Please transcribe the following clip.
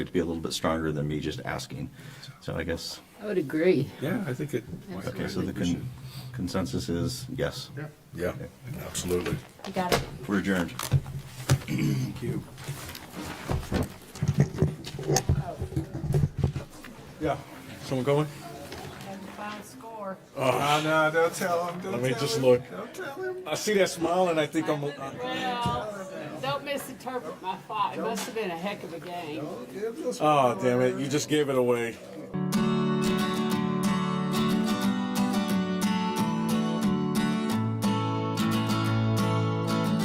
to be a little bit stronger than me just asking. So I guess, I would agree. Yeah, I think it. okay, so the con- consensus is yes. Yeah, absolutely. You got it. We're adjourned. Thank you. Yeah, someone going? Final score. Oh, no, don't tell him, don't Let me just look. I see that smile and I think I'm. Well, don't misinterpret my thought. It must have been a heck of a game. Oh damn it! You just gave it away.